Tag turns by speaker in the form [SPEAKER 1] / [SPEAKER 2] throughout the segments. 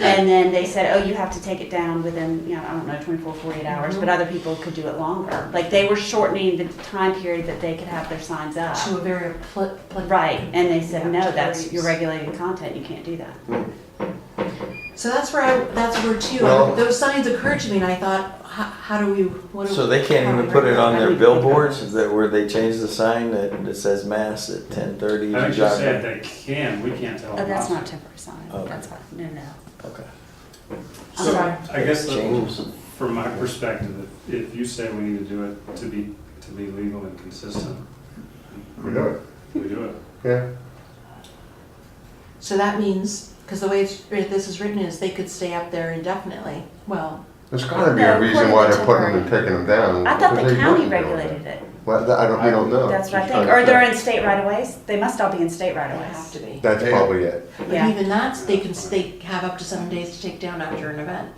[SPEAKER 1] And then they said, oh, you have to take it down within, you know, I don't know, 24, 48 hours, but other people could do it longer. Like, they were shortening the time period that they could have their signs up.
[SPEAKER 2] to a very pl- pl-
[SPEAKER 1] Right, and they said, no, that's,
[SPEAKER 2] Right.
[SPEAKER 1] you're regulating content, you can't do that.
[SPEAKER 2] So that's where I, that's where too,
[SPEAKER 3] Well-
[SPEAKER 2] those signs occurred to me and I thought, how, how do we, what do?
[SPEAKER 3] So they can't
[SPEAKER 2] how do
[SPEAKER 3] even
[SPEAKER 2] we
[SPEAKER 3] put it on
[SPEAKER 2] regulate
[SPEAKER 3] their billboards that, where they change the sign that, that says mass at ten thirty?
[SPEAKER 4] I just said they can, we can't tell
[SPEAKER 1] Oh,
[SPEAKER 4] them.
[SPEAKER 1] that's
[SPEAKER 4] not
[SPEAKER 1] not temporary sign,
[SPEAKER 3] Okay.
[SPEAKER 1] that's fine, no, no.
[SPEAKER 3] Okay.
[SPEAKER 4] to.
[SPEAKER 2] I'm
[SPEAKER 4] So,
[SPEAKER 2] sorry.
[SPEAKER 4] I guess the-
[SPEAKER 3] Change.
[SPEAKER 4] from my perspective, if if you say we need to do it to be, to be legal and consistent,
[SPEAKER 5] We do it,
[SPEAKER 4] we do it.
[SPEAKER 5] yeah.
[SPEAKER 2] that? So that means, because the way it's, writ- this is written is they could stay up there indefinitely. Well,
[SPEAKER 5] There's gotta be a
[SPEAKER 1] No,
[SPEAKER 5] reason
[SPEAKER 1] according
[SPEAKER 5] why
[SPEAKER 1] to
[SPEAKER 5] they're putting them and
[SPEAKER 1] temporary.
[SPEAKER 5] taking them down.
[SPEAKER 1] I thought
[SPEAKER 5] because
[SPEAKER 1] the
[SPEAKER 5] they
[SPEAKER 1] county
[SPEAKER 5] wouldn't do it.
[SPEAKER 1] regulated it,
[SPEAKER 5] Well, that- I don't, we don't know.
[SPEAKER 1] that's what I
[SPEAKER 5] Just
[SPEAKER 1] think,
[SPEAKER 5] trying
[SPEAKER 1] or
[SPEAKER 5] to-
[SPEAKER 1] they're in state right of ways, they must all be in state right
[SPEAKER 2] they
[SPEAKER 1] of
[SPEAKER 2] have
[SPEAKER 1] ways.
[SPEAKER 2] to be.
[SPEAKER 5] That's
[SPEAKER 3] Yeah.
[SPEAKER 5] probably it.
[SPEAKER 2] But
[SPEAKER 1] Yeah,
[SPEAKER 2] even that, they can, s- they have up to seven days to take down after an event.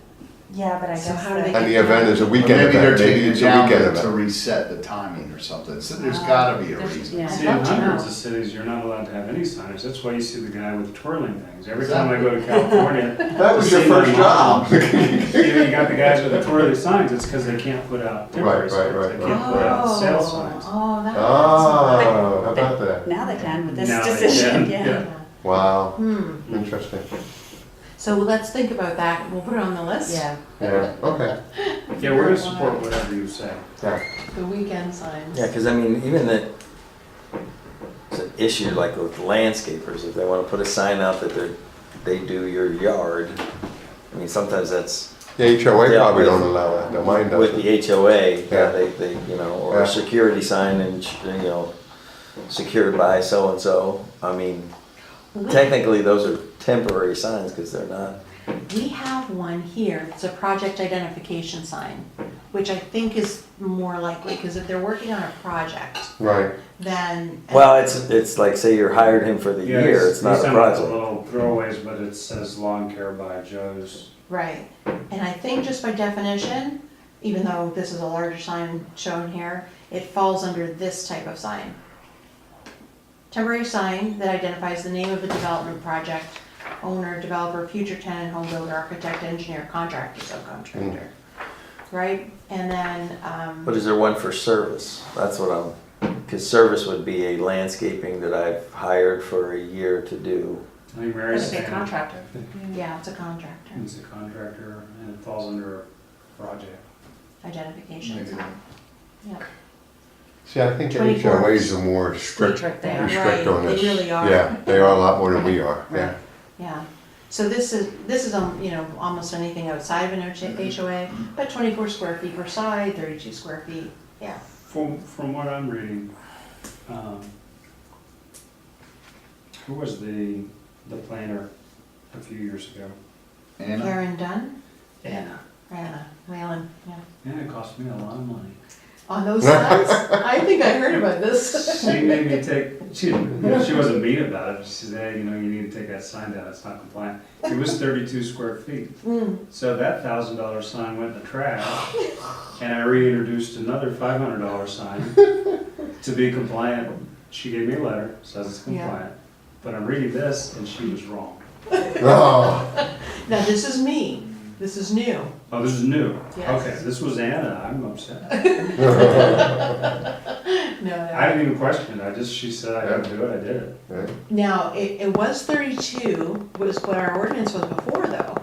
[SPEAKER 1] yeah, but I
[SPEAKER 2] So
[SPEAKER 1] guess
[SPEAKER 2] how do they-
[SPEAKER 1] that,
[SPEAKER 5] And the event is a
[SPEAKER 6] Or
[SPEAKER 5] weekend
[SPEAKER 6] Maybe they're
[SPEAKER 5] event,
[SPEAKER 6] taking
[SPEAKER 5] maybe
[SPEAKER 6] it
[SPEAKER 5] it's a
[SPEAKER 6] down
[SPEAKER 5] weekend
[SPEAKER 6] to to
[SPEAKER 5] event.
[SPEAKER 6] reset the timing or something, so there's
[SPEAKER 2] Uh,
[SPEAKER 6] gotta be a
[SPEAKER 2] there's-
[SPEAKER 6] reason.
[SPEAKER 1] yeah.
[SPEAKER 4] See,
[SPEAKER 2] I'd
[SPEAKER 4] in
[SPEAKER 2] love to
[SPEAKER 4] hundreds
[SPEAKER 2] know.
[SPEAKER 4] of cities, you're not allowed to have any signage, that's why you see the guy with the twirling things. Every time
[SPEAKER 6] Exactly.
[SPEAKER 4] I go to California,
[SPEAKER 6] That
[SPEAKER 4] was your first job. you know, you got the guys with the twirling signs, it's because they can't put out temporary
[SPEAKER 5] Right, right,
[SPEAKER 4] signs, they
[SPEAKER 5] right, right.
[SPEAKER 4] can't put out
[SPEAKER 2] Oh,
[SPEAKER 4] sales signs.
[SPEAKER 2] Oh, that.
[SPEAKER 3] Ah.
[SPEAKER 5] Oh, how about that?
[SPEAKER 1] now they can with this
[SPEAKER 4] Now they
[SPEAKER 1] decision,
[SPEAKER 4] can,
[SPEAKER 1] yeah.
[SPEAKER 4] yeah.
[SPEAKER 5] Wow,
[SPEAKER 2] Hmm,
[SPEAKER 5] interesting.
[SPEAKER 2] so let's think about that. We'll put it on the list.
[SPEAKER 1] Yeah,
[SPEAKER 5] Yeah, okay.
[SPEAKER 4] Yeah, we're gonna support whatever you say.
[SPEAKER 5] Yeah.
[SPEAKER 2] The weekend signs.
[SPEAKER 3] Yeah, cause I mean, even that, it's an issue like with landscapers, if they wanna put a sign out that they're, they do your yard. I mean, sometimes that's
[SPEAKER 5] The HOA
[SPEAKER 3] Yeah,
[SPEAKER 5] probably
[SPEAKER 3] with-
[SPEAKER 5] don't allow that, no, mine
[SPEAKER 3] with
[SPEAKER 5] doesn't.
[SPEAKER 3] the HOA,
[SPEAKER 5] Yeah.
[SPEAKER 3] yeah, they, they, you know, or
[SPEAKER 5] Yeah.
[SPEAKER 3] a security sign and, you know, secured by so and so. I mean, technically, those are temporary signs, cause they're not
[SPEAKER 2] We have one here, it's a project identification sign, which I think is more likely, because if they're working on a project,
[SPEAKER 5] Right,
[SPEAKER 2] then.
[SPEAKER 3] Well, it's it's like say you hired him for the
[SPEAKER 4] Yeah,
[SPEAKER 3] year. It's not a
[SPEAKER 4] send out the
[SPEAKER 3] project.
[SPEAKER 4] Little throwaways, but it says lawn care by Joe's.
[SPEAKER 2] Right, and I think just by definition, even though this is a larger sign shown here, it falls under this type of sign. Temporary sign that identifies the name of the development project, owner, developer, future tenant, home builder, architect, engineer, contractor, subcontractor.
[SPEAKER 3] Hmm.
[SPEAKER 2] Right, and then, um.
[SPEAKER 3] But is there one for service? That's what I'm. Because service would be a landscaping that I've hired for a year to do.
[SPEAKER 4] I think Mary's
[SPEAKER 2] It's a
[SPEAKER 4] saying.
[SPEAKER 2] contractor. Yeah, it's a contractor,
[SPEAKER 4] He's a contractor and it falls under project.
[SPEAKER 2] identification
[SPEAKER 6] Maybe.
[SPEAKER 2] sign. Yeah.
[SPEAKER 5] see, I think the
[SPEAKER 2] 24.
[SPEAKER 5] HOAs are more strict,
[SPEAKER 1] Strict there.
[SPEAKER 5] strict
[SPEAKER 2] Right,
[SPEAKER 5] on
[SPEAKER 2] they
[SPEAKER 5] this.
[SPEAKER 2] really are.
[SPEAKER 5] Yeah, they are a lot more than we are, yeah.
[SPEAKER 2] Right. Yeah, so this is, this is, um, you know, almost anything outside of an H- HOA, but twenty-four square feet per side, thirty-two square feet, yeah.
[SPEAKER 4] From, from what I'm reading, um, who was the, the planner a few years ago?
[SPEAKER 6] And
[SPEAKER 2] Karen Dunn,
[SPEAKER 4] Anna.
[SPEAKER 2] Rana, Whalen, yeah,
[SPEAKER 4] Anna cost me a lot of money.
[SPEAKER 2] on those sides, I think I heard about this.
[SPEAKER 4] She made me take, she, you know, she wasn't mean about it. She said, hey, you know, you need to take that sign down, it's not compliant. It was thirty-two square feet.
[SPEAKER 2] Hmm,
[SPEAKER 4] So that thousand dollar sign went in the trash, and I reintroduced another five hundred dollar sign to be compliant. She gave me a letter, says it's
[SPEAKER 2] Yeah.
[SPEAKER 4] compliant, but I'm reading this and she was wrong.
[SPEAKER 5] Oh,
[SPEAKER 2] now this is me, this is new,
[SPEAKER 4] Oh, this is new.
[SPEAKER 2] Yes.
[SPEAKER 4] Okay, this was Anna. I'm upset.
[SPEAKER 2] no,
[SPEAKER 4] I
[SPEAKER 2] no.
[SPEAKER 4] didn't even question it. I just she said I gotta do it. I did it.
[SPEAKER 5] yeah.
[SPEAKER 2] Now, it, it was thirty-two, was what our ordinance was before though,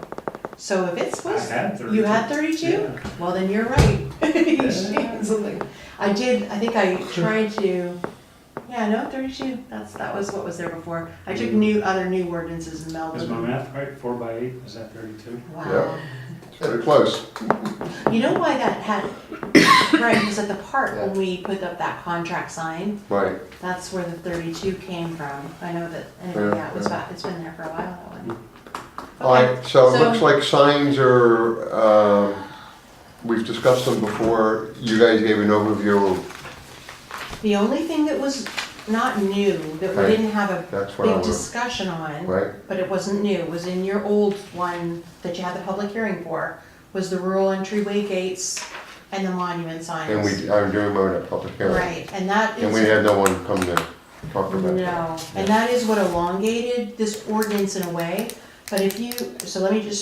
[SPEAKER 2] so if it's
[SPEAKER 4] I
[SPEAKER 2] was
[SPEAKER 4] had thirty.
[SPEAKER 2] You had thirty-two?
[SPEAKER 4] Yeah.
[SPEAKER 2] Well, then you're right. You should. Something. I did, I think I tried to, yeah, no, thirty-two, that's, that was what was there before. I took new, other new ordinances and melded
[SPEAKER 4] Is my
[SPEAKER 2] them.
[SPEAKER 4] math right? Four by eight. Is that thirty-two?
[SPEAKER 2] Wow.
[SPEAKER 5] It's Pretty close.
[SPEAKER 2] You know why that had, right, because at the park, when we put up that contract sign,
[SPEAKER 5] Right,
[SPEAKER 2] that's where the thirty-two came from. I know that, anyway,
[SPEAKER 5] Yeah,
[SPEAKER 2] yeah, it was,
[SPEAKER 5] yeah.
[SPEAKER 2] about- it's been there for a while, that one.
[SPEAKER 5] all right, so it
[SPEAKER 2] So-
[SPEAKER 5] looks like signs are, um, we've discussed them before. You guys gave an overview of
[SPEAKER 2] The only thing that was not new, that we
[SPEAKER 5] Right.
[SPEAKER 2] didn't have a
[SPEAKER 5] That's what I
[SPEAKER 2] big
[SPEAKER 5] was-
[SPEAKER 2] discussion on.
[SPEAKER 5] Right.
[SPEAKER 2] But it wasn't new, it was in your old one that you had the public hearing for, was the rural entryway gates and the monument signs.
[SPEAKER 5] And we, I'm doing mine at public hearing.
[SPEAKER 2] Right, and that is.
[SPEAKER 5] And we had no one come to talk about that.
[SPEAKER 2] No, and that is what elongated this ordinance in a way, but if you, so let me just